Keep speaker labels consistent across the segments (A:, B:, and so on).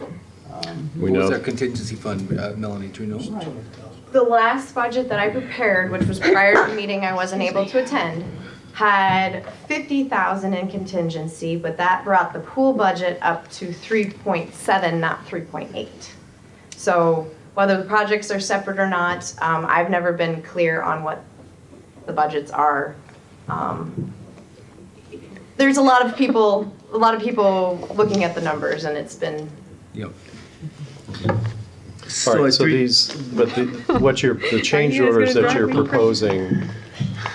A: We
B: What was
A: know.
B: our contingency fund, uh, Melanie, do you know?
C: The last budget that I prepared, which was prior to the meeting I wasn't able to attend, had fifty thousand in contingency, but that brought the pool budget up to three point seven, not three point eight. So whether the projects are separate or not, um, I've never been clear on what the budgets are. Um, There's a lot of people, a lot of people looking at the numbers and it's been,
B: Yep.
A: All
B: I
A: right, so
B: three-
A: these, but the, what you're, the change
D: you guys
A: orders
D: gonna
A: that you're
D: drop me?
A: proposing,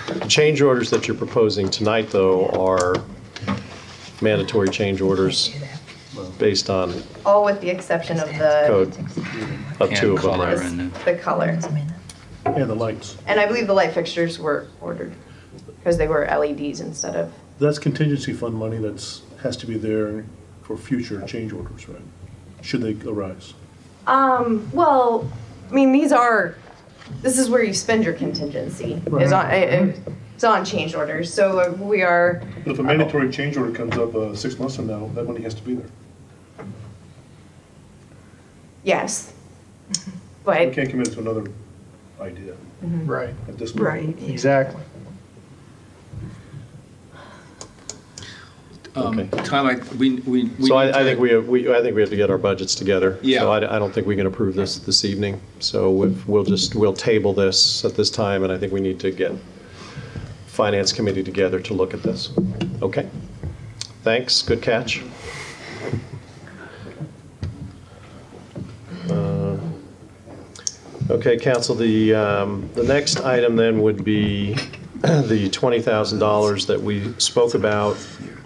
A: the change orders that you're proposing tonight, though, are mandatory change orders based on,
C: all with the exception of the,
A: Code. of
E: And
A: two of them,
E: color
A: right?
E: and
C: the color.
F: Yeah, the lights.
C: And I believe the light fixtures were ordered because they were LEDs instead of,
F: That's contingency fund money that's, has to be there for future change orders, right? Should they arise.
C: um, well, I mean, these are, this is where you spend your contingency. Is on, it- it's on change orders, so we are,
F: But if a mandatory change order comes up uh, six months from now, that money has to be there.
C: yes.
F: We
C: But
F: can't commit to another idea
G: Right.
F: at this point.
D: Right.
G: Exactly.
B: Um,
A: Okay.
B: Tom, I, we, we. we
A: So
B: need
A: I, I
B: to-
A: think we have, we, I think we have to get our budgets together.
B: Yeah.
A: So I, I don't think we can approve this this evening. So we've- we'll just, we'll table this at this time, and I think we need to get Finance Committee together to look at this. Okay? Thanks, good catch. Uh, Okay, council, the, um, the next item then would be the $20,000 that we spoke about,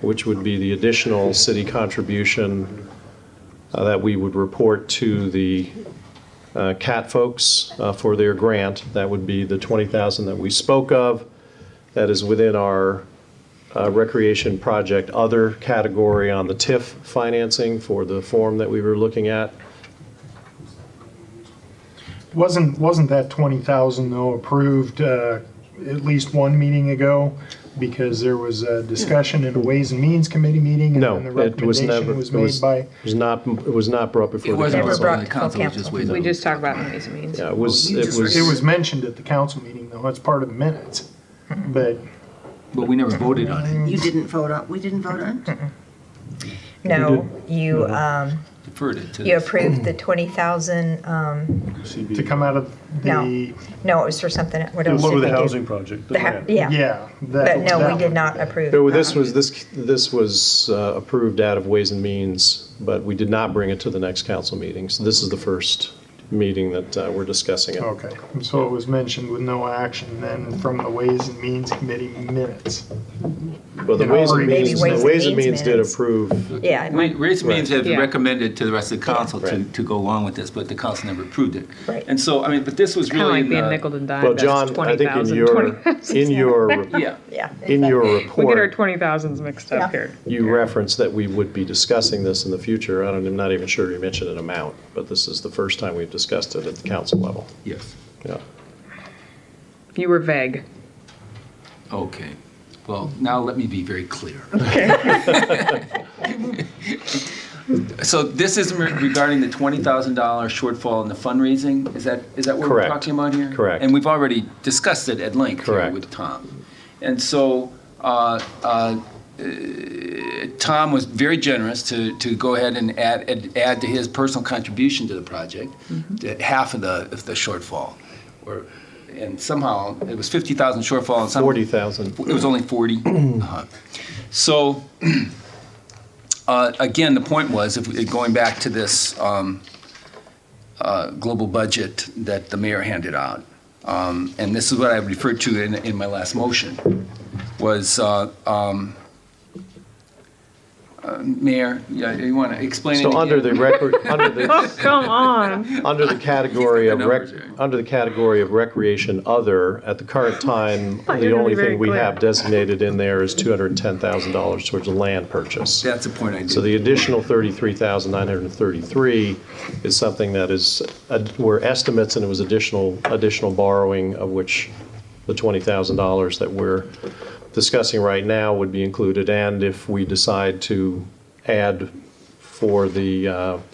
A: which would be the additional city contribution uh, that we would report to the uh, CAT folks uh, for their grant. That would be the 20,000 that we spoke of. That is within our uh, recreation project other category on the TIF financing for the form that we were looking at.
G: Wasn't, wasn't that 20,000 though approved uh, at least one meeting ago? Because there was a discussion in a Ways and Means Committee meeting?
A: No,
G: And then the
A: it was never.
G: recommendation was
A: it was-
G: made by,
A: It was not, it was not brought
B: It
A: before the
B: wasn't
D: Never
A: council.
B: brought to
D: brought
B: the
D: to
B: council, it was just
D: council.
B: waited
D: We
B: on-
D: just talked about it in these meetings.
A: Yeah, it was,
B: you
A: it
B: just
G: it
A: was,
G: was mentioned at the council meeting though, it's part of the minutes. But
B: But we never voted on it.
H: You didn't vote on, we didn't vote on it?
I: No, you, um,
B: Deferred it to.
I: you
B: this.
I: approved the twenty thousand, um,
F: CB.
G: to come out of
I: No.
G: the,
I: no, it was for something, what
F: To
I: else did
F: lower
I: we do?
F: the housing project, the
I: The hou-
F: grant.
I: Yeah,
G: yeah.
I: but no, we did
G: not.
I: not approve.
A: no, this
I: that.
A: was, this, this was uh, approved out of Ways and Means, but we did not bring it to the next council meeting. So this is the first meeting that uh, we're discussing it.
G: Okay, so it was mentioned with no action then from the Ways and Means Committee minutes.
A: Well, the
G: Yeah,
A: Ways
G: or
A: and
G: maybe
A: Means,
I: Ways
A: the
I: and
A: Ways and
I: Means
A: Means did
I: minutes.
A: approve,
I: Yeah, it
B: We-
I: might-
B: Raise means have
D: Yeah.
B: recommended to the rest of the council to,
A: Right.
B: to go along with this, but the council never approved it.
I: Right.
B: And so, I mean, but this was
D: Kind of
B: really
D: like
B: in
D: being
B: the,
D: nickel and dimed.
A: well,
D: that's
A: John, I think in
D: 20,000,
A: your,
D: 20,000.
A: in your,
B: yeah.
I: yeah.
A: in your
D: We get our
A: report,
D: twenty thousands mixed up
I: Yeah.
D: here.
A: you referenced that we would be discussing this in the future. I don't, I'm not even sure you mentioned an amount, but this is the first time we've discussed it at the council level.
B: Yes.
A: Yeah.
D: You were vague.
B: Okay. Well, now let me be very clear. So this is regarding the $20,000 shortfall in the fundraising? Is that, is that what we're
A: Correct.
B: talking about here?
A: Correct.
B: And we've already discussed it at length here
A: Correct.
B: with Tom. And so uh, uh, eh, Tom was very generous to, to go ahead and add, add- add to his personal contribution to the project,
A: Mm-hmm.
B: that half of the, of the shortfall. Or And somehow, it was 50,000 shortfall and somehow.
A: 40,000.
B: It was only 40. Uh-huh. So, uh, again, the point was, if, we- going back to this um, uh, global budget that the mayor handed out, um, and this is what I referred to in, in my last motion, was, uh, um, uh, Mayor, yeah, you want to explain it
A: So under
B: again?
A: the record, under the,
D: Oh, Come on.
A: under the category of
B: the
A: rec,
B: numbers here.
A: under the category of recreation other, at the current time,
D: you're
A: the
D: gonna
A: only
D: be very
A: thing we
D: clear.
A: have designated in there is $210,000 towards a land purchase.
B: That's the point I did.
A: So the additional 33,933 is something that is, uh, were estimates, and it was additional, additional borrowing, of which the $20,000 that we're discussing right now would be included, and if we decide to add for the uh,